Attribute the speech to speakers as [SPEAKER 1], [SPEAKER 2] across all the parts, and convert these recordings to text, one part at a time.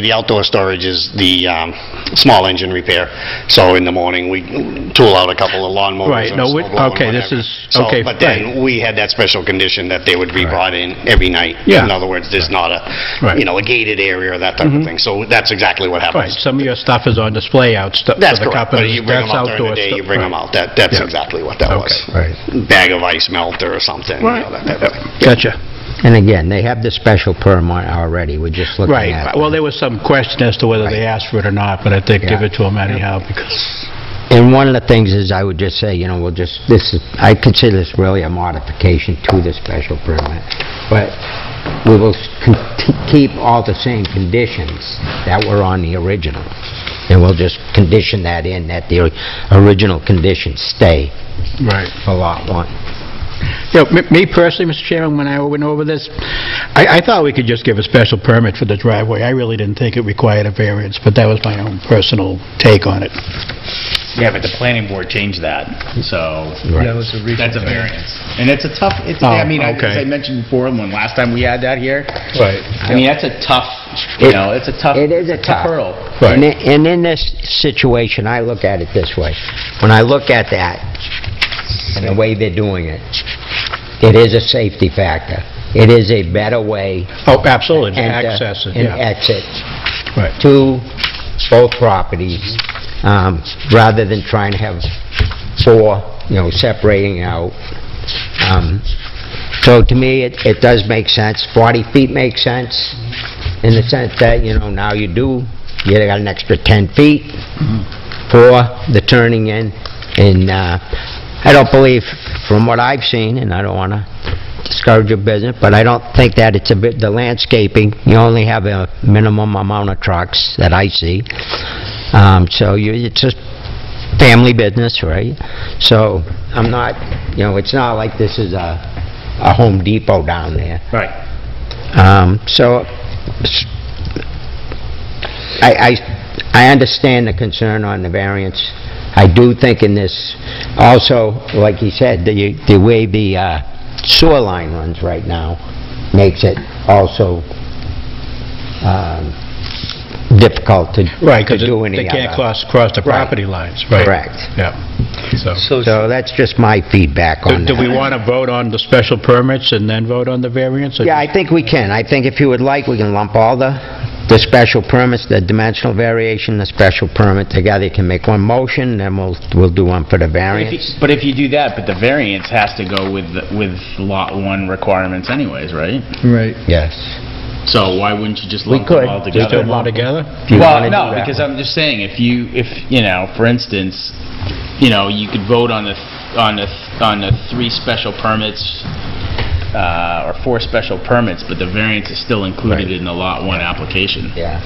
[SPEAKER 1] The outdoor storage is the um, small engine repair, so in the morning, we tool out a couple of lawn mowers
[SPEAKER 2] Right,
[SPEAKER 1] or
[SPEAKER 2] no, we-
[SPEAKER 1] snow blower,
[SPEAKER 2] okay, this
[SPEAKER 1] whatever.
[SPEAKER 2] is-
[SPEAKER 1] So,
[SPEAKER 2] okay,
[SPEAKER 1] But then, we had that special condition that they would be brought in every night.
[SPEAKER 2] Yeah.
[SPEAKER 1] In other words, there's not a,
[SPEAKER 2] Right. Mm-hmm.
[SPEAKER 1] you know, a gated area or that type of thing, so that's exactly what
[SPEAKER 2] Right,
[SPEAKER 1] happens.
[SPEAKER 2] some of your stuff is on display out, stuff for
[SPEAKER 1] That's
[SPEAKER 2] the
[SPEAKER 1] correct, but
[SPEAKER 2] companies.
[SPEAKER 1] you bring them
[SPEAKER 2] That's
[SPEAKER 1] out during
[SPEAKER 2] outdoor
[SPEAKER 1] the day, you
[SPEAKER 2] stuff,
[SPEAKER 1] bring
[SPEAKER 2] right.
[SPEAKER 1] them out, that, that's
[SPEAKER 2] Yeah.
[SPEAKER 1] exactly what that was.
[SPEAKER 2] Okay,
[SPEAKER 1] Bag of ice melter or something, you
[SPEAKER 2] Right.
[SPEAKER 1] know, that type of thing.
[SPEAKER 2] Gotcha.
[SPEAKER 3] And again, they have the special permit already, we're just looking
[SPEAKER 2] Right,
[SPEAKER 3] at.
[SPEAKER 2] well, there was some question as to whether they asked for it or not, but I think give
[SPEAKER 3] Yeah.
[SPEAKER 2] it to them anyhow, because,
[SPEAKER 3] And one of the things is, I would just say, you know, we'll just, this is, I consider this really a modification to the special permit, but we will s- con- t- keep all the same conditions that were on the original, and we'll just condition that in, that the original conditions stay
[SPEAKER 2] right.
[SPEAKER 3] for Lot 1.
[SPEAKER 2] You know, me- me personally, Mr. Chairman, when I went over this, I, I thought we could just give a special permit for the driveway. I really didn't think it required a variance, but that was my own personal take on it.
[SPEAKER 4] Yeah, but the planning board changed that, so.
[SPEAKER 3] Yeah, that
[SPEAKER 4] was a That's a variance. And it's a tough, it's,
[SPEAKER 2] Oh,
[SPEAKER 4] I mean, I-
[SPEAKER 2] okay.
[SPEAKER 4] as I mentioned before, when last time we had that here,
[SPEAKER 2] Right.
[SPEAKER 4] I mean, that's a tough, you
[SPEAKER 3] It-
[SPEAKER 4] know, it's a
[SPEAKER 2] Uh,
[SPEAKER 4] tough.
[SPEAKER 3] It is a tough.
[SPEAKER 4] hurdle.
[SPEAKER 2] Right.
[SPEAKER 3] And i- And in this situation, I look at it this way. When I look at that and the way they're doing it, it is a safety factor. It is a better way.
[SPEAKER 2] Oh, absolutely, to
[SPEAKER 3] and, uh,
[SPEAKER 2] access it,
[SPEAKER 3] And
[SPEAKER 2] yeah.
[SPEAKER 3] exit
[SPEAKER 2] Right.
[SPEAKER 3] to both properties, um, rather than trying to have four, you know, separating out. Um, So to me, it, it does make sense. 40 feet makes sense in the sense that, you know, now you do, you got an extra 10 feet for the turning in. And, uh, I don't believe, from what I've seen, and I don't want to discourage your business, but I don't think that it's a bit, the landscaping, you only have a minimum amount of trucks that I see. Um, so you, it's just family business, right? So I'm not, you know, it's not like this is a, a Home Depot down there.
[SPEAKER 4] Right.
[SPEAKER 3] Um, so s- I, I, I understand the concern on the variance. I do think in this, also, like he said, the, the way the uh, sewer line runs right now makes it also, um, difficult to,
[SPEAKER 2] Right,
[SPEAKER 3] to
[SPEAKER 2] because
[SPEAKER 3] do any
[SPEAKER 2] they can't
[SPEAKER 3] other.
[SPEAKER 2] cross, cross the
[SPEAKER 3] Right.
[SPEAKER 2] property lines, right?
[SPEAKER 3] Correct.
[SPEAKER 2] Yeah, so.
[SPEAKER 3] So that's just my feedback on
[SPEAKER 2] Do
[SPEAKER 3] that.
[SPEAKER 2] do we want to vote on the special permits and then vote on the variance? or
[SPEAKER 3] Yeah, I think we can. I think if you would like, we can lump all the, the special permits, the dimensional variation, the special permit together. You can make one motion, then we'll, we'll do one for the
[SPEAKER 4] If you-
[SPEAKER 3] variance.
[SPEAKER 4] But if you do that, but the variance has to go with, the- with lot one requirements anyways, right?
[SPEAKER 5] Right.
[SPEAKER 3] Yes.
[SPEAKER 4] So why wouldn't you just lump
[SPEAKER 3] could.
[SPEAKER 4] them all
[SPEAKER 3] We
[SPEAKER 2] Just
[SPEAKER 4] together?
[SPEAKER 2] do them all together?
[SPEAKER 3] If you wanna do
[SPEAKER 4] Well, no,
[SPEAKER 3] that.
[SPEAKER 4] because I'm just saying, if you, if, you know, for instance, you know, you could vote on the, th- on the, th- on the three special permits, uh, or four special permits, but the variance is still included in the Lot 1 application.
[SPEAKER 3] Yeah.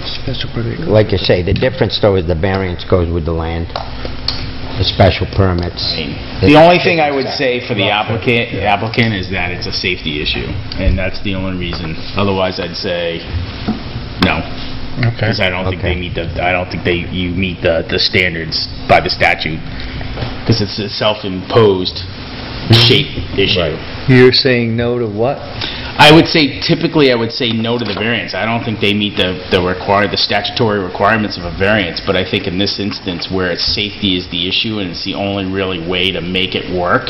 [SPEAKER 3] Like you say, the difference though is the variance goes with the land, the special permits.
[SPEAKER 4] I mean, The only thing I would say for the applicant, applicant is that it's a safety issue, and that's the only reason. Otherwise, I'd say, no. Because I don't think they
[SPEAKER 3] Okay.
[SPEAKER 4] meet the, I don't think they, you meet the, the standards by the statute. Because it's a self-imposed shape issue.
[SPEAKER 5] You're saying no to what?
[SPEAKER 4] I would say, typically, I would say no to the variance. I don't think they meet the, the require, the statutory requirements of a variance, but I think in this instance where it's safety is the issue and it's the only really way to make it work,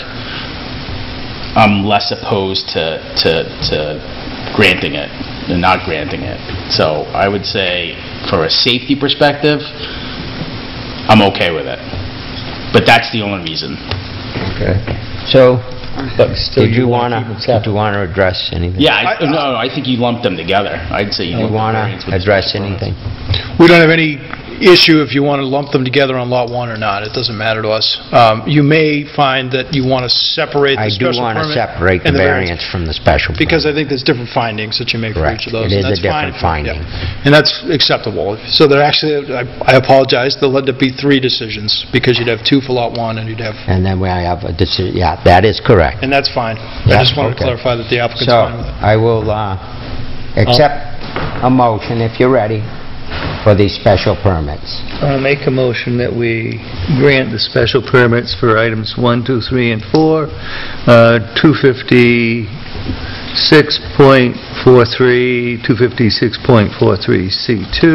[SPEAKER 4] I'm less opposed to, to, to granting it than not granting it. So I would say, for a safety perspective, I'm okay with it. But that's the only reason.
[SPEAKER 3] Okay. So, did you wanna, did you wanna address anything?
[SPEAKER 4] Yeah, I, no, I think you lump them together. I'd say you
[SPEAKER 3] You
[SPEAKER 4] lump the
[SPEAKER 3] wanna
[SPEAKER 4] variance with the
[SPEAKER 3] address
[SPEAKER 4] special permit.
[SPEAKER 3] anything?
[SPEAKER 5] We don't have any issue if you want to lump them together on Lot 1 or not. It doesn't matter to us. Um, You may find that you want to separate
[SPEAKER 3] I
[SPEAKER 5] the
[SPEAKER 3] do
[SPEAKER 5] special
[SPEAKER 3] wanna
[SPEAKER 5] permit.
[SPEAKER 3] separate the
[SPEAKER 5] and
[SPEAKER 3] variance from the special permit.
[SPEAKER 5] Because I think there's different findings that you make for
[SPEAKER 3] Correct.
[SPEAKER 5] each of those.
[SPEAKER 3] It
[SPEAKER 5] and
[SPEAKER 3] is a
[SPEAKER 5] that's fine.
[SPEAKER 3] different finding.
[SPEAKER 5] Yeah. And that's acceptable. So there actually, I I apologize, there'll end up be three decisions, because you'd have two for Lot 1 and you'd have,
[SPEAKER 3] And then we have a decision, yeah, that is correct.
[SPEAKER 5] and that's fine. I
[SPEAKER 3] Yeah,
[SPEAKER 5] just wanted to
[SPEAKER 3] okay.
[SPEAKER 5] clarify that the applicant's
[SPEAKER 3] So,
[SPEAKER 5] fine with it.
[SPEAKER 3] I will uh, accept a motion, if you're ready, for these special permits.
[SPEAKER 6] I'll make a motion that we grant the special permits for items 1, 2, 3, and 4, uh, 256.43, 256.43C2,